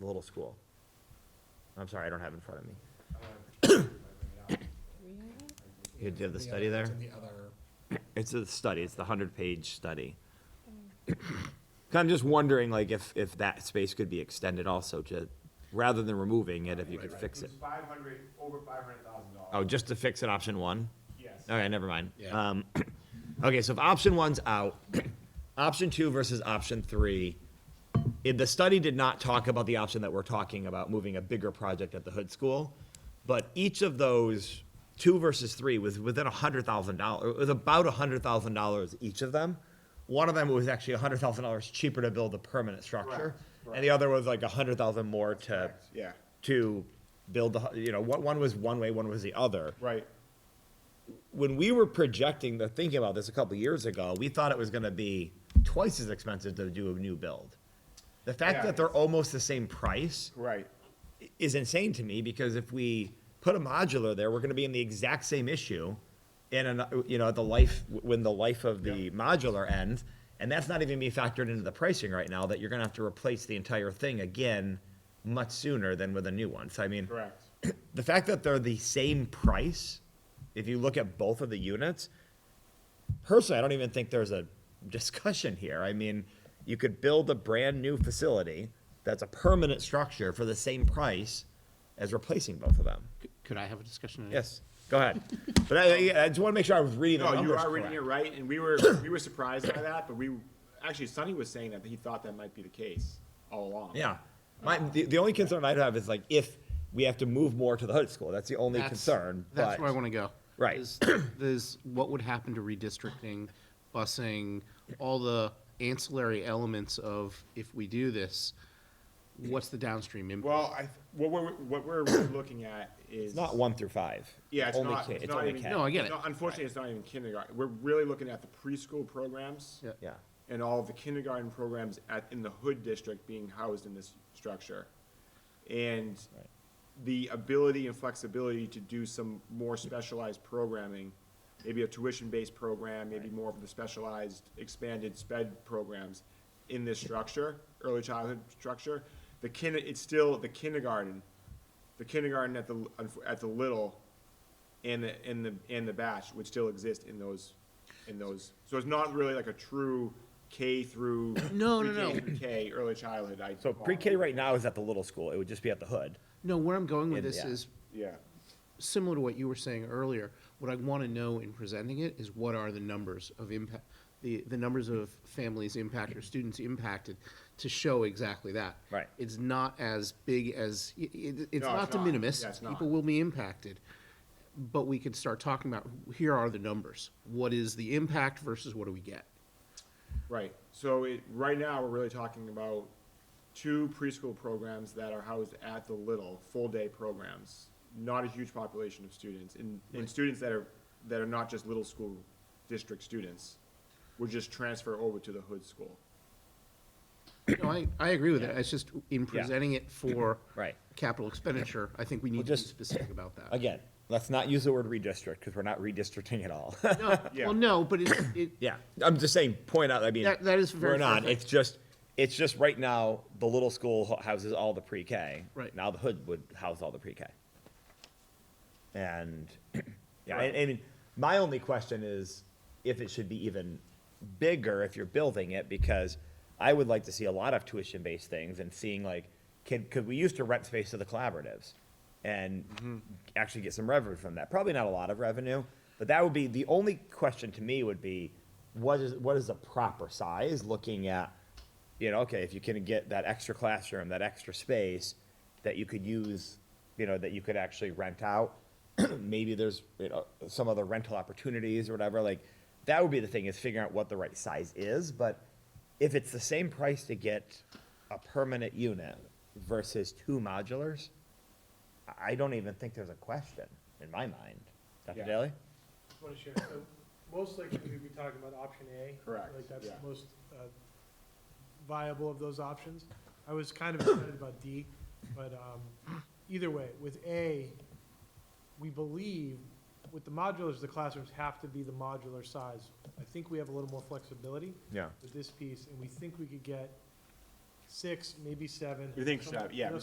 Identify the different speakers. Speaker 1: the little school. I'm sorry, I don't have it in front of me. You did the study there?
Speaker 2: It's in the other,
Speaker 1: It's a study, it's the hundred-page study.
Speaker 2: Mm.
Speaker 1: 'Cause I'm just wondering, like, if, if that space could be extended also to, rather than removing it, if you could fix it.
Speaker 3: was five hundred, over five hundred thousand
Speaker 1: Oh,
Speaker 3: dollars.
Speaker 1: just to fix it, option one?
Speaker 3: Yes.
Speaker 1: Okay, never mind.
Speaker 2: Yeah.
Speaker 1: Um, okay, so if option one's out, option two versus option three. It, the study did not talk about the option that we're talking about, moving a bigger project at the hood school. But each of those, two versus three, was within a hundred thousand dollars, it was about a hundred thousand dollars each of them. One of them was actually a hundred thousand dollars cheaper to build a permanent structure.
Speaker 3: Correct,
Speaker 1: And the other was like a hundred thousand more to,
Speaker 3: Correct, yeah.
Speaker 1: to build the, hu- you know, one, one was one way, one was the other
Speaker 3: Right.
Speaker 1: when we were projecting the thinking about this a couple years ago, we thought it was going to be twice as expensive to do a new build. The fact
Speaker 3: Yeah.
Speaker 1: that they're almost the same price
Speaker 3: Right.
Speaker 1: is insane to me because if we put a modular there, we're going to be in the exact same issue in an, you know the life when the life of the modular ends, and that's not even being factored into the pricing right now. That you're going to have to replace the entire thing again much sooner than with a new one. So I mean,
Speaker 3: Correct.
Speaker 1: the fact that they're the same price, if you look at both of the units, personally, I don't even think there's a discussion here. I mean, you could build a brand new facility that's a permanent structure for the same price as replacing both of them.
Speaker 4: C- Could I have a discussion? on it?
Speaker 1: Yes, go ahead. But I, I just want to make sure I was reading the
Speaker 3: No, you
Speaker 1: numbers
Speaker 3: are reading it
Speaker 1: correct.
Speaker 3: right, and we were, we were surprised by that, but we, actually Sonny was saying that he thought that might be the case all along.
Speaker 1: Yeah. My, the, the only concern I'd have is like if we have to move more to the hood school, that's the only
Speaker 4: That's-
Speaker 1: concern,
Speaker 4: That's
Speaker 1: but-
Speaker 4: where I want to go.
Speaker 1: Right.
Speaker 4: is- Is what would happen to redistricting, busing, all the ancillary elements of if we do this, what's the downstream impact?
Speaker 3: Well, I, what we're, what we're really looking at is.
Speaker 1: It's not one through five.
Speaker 3: Yeah, it's
Speaker 1: only
Speaker 3: not,
Speaker 1: K-
Speaker 3: it's not
Speaker 1: only
Speaker 3: even.
Speaker 1: K.
Speaker 4: No, I get
Speaker 3: it's
Speaker 4: it.
Speaker 3: not- Unfortunately, it's not even kindergarten. We're really looking at the preschool programs.
Speaker 4: Yeah.
Speaker 1: Yeah.
Speaker 3: and all of the kindergarten programs at, in the hood district being housed in this structure. And the ability and flexibility to do some more specialized programming, maybe a tuition-based program, maybe more of the specialized expanded sped programs in this structure, early childhood structure. The kin, it's still the kindergarten, the kindergarten at the, at the little and the, and the, and the batch would still exist in those, in those. So it's not really like a true K through.
Speaker 4: No, no,
Speaker 3: pre-K
Speaker 4: no.
Speaker 3: through K, early childhood. I
Speaker 1: So pre-K right now is at the little school. It would just be at the hood.
Speaker 4: No, where I'm going with
Speaker 1: And-
Speaker 4: this
Speaker 1: yeah.
Speaker 4: is
Speaker 3: Yeah,
Speaker 4: similar to what you were saying earlier, what I want to know in presenting it is what are the numbers of impact, the, the numbers of families impacted or students impacted to show exactly that.
Speaker 1: Right.
Speaker 4: It's not as big as, i- i- it's
Speaker 3: No,
Speaker 4: not
Speaker 3: it's
Speaker 4: de
Speaker 3: not.
Speaker 4: minimis.
Speaker 3: Yeah, it's not.
Speaker 4: People will be impacted. But we could start talking about, here are the numbers. What is the impact versus what do we get?
Speaker 3: right. So it, right now, we're really talking about two preschool programs that are housed at the little, full-day programs. Not a huge population of students and, and students that are, that are not just little school district students. Would just transfer over to the hood school.
Speaker 4: No, I, I agree with that. It's just in presenting it for
Speaker 1: Right.
Speaker 4: capital expenditure, I think we need to be
Speaker 1: just-
Speaker 4: specific about that.
Speaker 1: Again, let's not use the word redistrict because we're not redistricting at all.
Speaker 4: No,
Speaker 3: Yeah.
Speaker 4: Well, no, but it, it,
Speaker 1: yeah, I'm just saying, point out, I mean.
Speaker 4: That- that is very
Speaker 1: We're not,
Speaker 4: fair.
Speaker 1: it's just, it's just right now, the little school ho- houses all the pre-K.
Speaker 4: Right.
Speaker 1: Now the hood would house all the pre-K. And, yeah, and, and my only question is if it should be even bigger if you're building it, because I would like to see a lot of tuition-based things and seeing like, can, could we used to rent space to the collaboratives and actually get some revenue from that? Probably not a lot of revenue, but that would be, the only question to me would be, what is, what is the proper size, looking at, you know, okay, if you can get that extra classroom, that extra space that you could use, you know, that you could actually rent out, maybe there's, you know, some other rental opportunities or whatever, like, that would be the thing, is figuring out what the right size is, but if it's the same price to get a permanent unit versus two modulars, I- I don't even think there's a question in my mind. Dr.
Speaker 3: Yeah.
Speaker 1: Daly?
Speaker 5: Want to share, so most likely we'd be talking about option A.
Speaker 3: Correct,
Speaker 5: Like that's
Speaker 3: yeah.
Speaker 5: the most uh, viable of those options. I was kind of excited about D, but um, either way, with A, we believe with the modulars, the classrooms have to be the modular size. I think we have a little more flexibility
Speaker 1: Yeah.
Speaker 5: with this piece, and we think we could get six, maybe seven.
Speaker 3: We think
Speaker 5: something-
Speaker 3: so, yeah,
Speaker 5: you know,